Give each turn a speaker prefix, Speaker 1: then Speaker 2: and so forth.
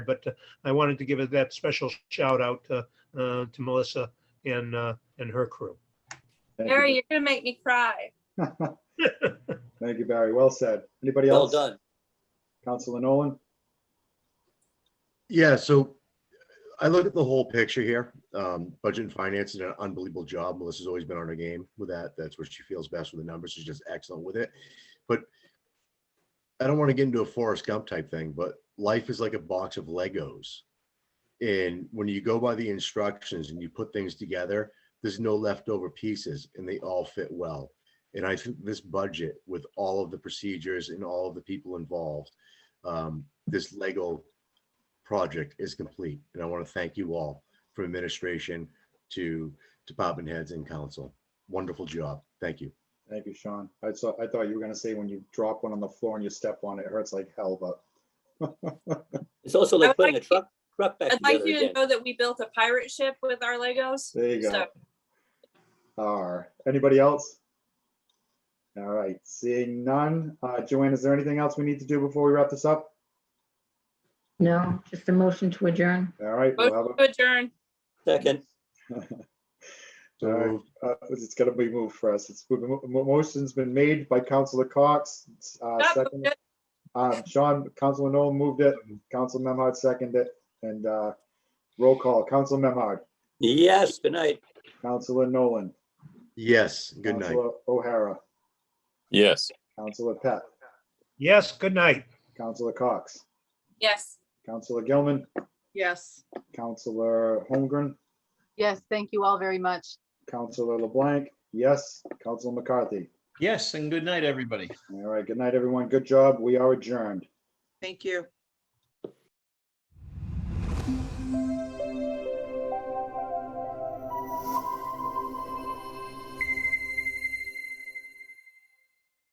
Speaker 1: but uh, I wanted to give it that special shout out uh, uh, to Melissa and, uh, and her crew.
Speaker 2: Thank you.
Speaker 3: Harry, you're gonna make me cry.
Speaker 2: Thank you, Barry. Well said. Anybody
Speaker 4: Well
Speaker 2: else?
Speaker 4: done.
Speaker 2: Counselor Nolan?
Speaker 5: Yeah, so I look at the whole picture here. Um, budget and finance did an unbelievable job. Melissa's always been on her game with that. That's where she feels best with the numbers. She's just excellent with it. But I don't want to get into a Forrest Gump type thing, but life is like a box of Legos. And when you go by the instructions and you put things together, there's no leftover pieces and they all fit well. And I think this budget with all of the procedures and all of the people involved, um, this Lego project is complete. And I want to thank you all from administration to department heads and council. Wonderful job. Thank you.
Speaker 2: Thank you, Sean. I saw, I thought you were gonna say when you drop one on the floor and you step on it, it hurts like hell, but.
Speaker 4: It's also
Speaker 3: I
Speaker 4: like
Speaker 3: would
Speaker 4: putting a
Speaker 3: like
Speaker 4: truck, truck back
Speaker 3: I'd like
Speaker 4: together
Speaker 3: you to
Speaker 4: again.
Speaker 3: know that we built a pirate ship with our Legos.
Speaker 2: There you go.
Speaker 3: So-
Speaker 2: All right. Anybody else? All right, seeing none. Uh, Joanne, is there anything else we need to do before we wrap this up?
Speaker 6: No, just a motion to adjourn.
Speaker 2: All right, we'll have
Speaker 3: Motion to adjourn.
Speaker 4: Second,
Speaker 5: So
Speaker 2: All right.
Speaker 5: moved.
Speaker 2: a- uh, it's gonna be moved for us. It's, mo- mo- motion's been made by Counselor Cox. uh,
Speaker 3: Stop,
Speaker 2: second-
Speaker 3: Motion
Speaker 2: Uh, Sean, Counselor Nolan moved it, Counsel Memhard seconded it, and, uh, roll call, Counsel Memhard,
Speaker 4: yes, good night.
Speaker 2: Counselor Nolan,
Speaker 5: Yes, good night.
Speaker 2: Counselor O'Hara,
Speaker 7: Yes.
Speaker 2: Counselor Pat,
Speaker 1: Yes, good night.
Speaker 2: Counselor Cox,
Speaker 3: yes.
Speaker 2: Counselor Gilman,
Speaker 8: Yes,
Speaker 2: Counselor Holmgren,
Speaker 8: yes, thank you all very much.
Speaker 2: Counselor LeBlanc, yes, Counselor McCarthy.
Speaker 9: Yes, and good night, everybody.
Speaker 2: All right, good night, everyone. Good job. We are adjourned.
Speaker 8: Thank you.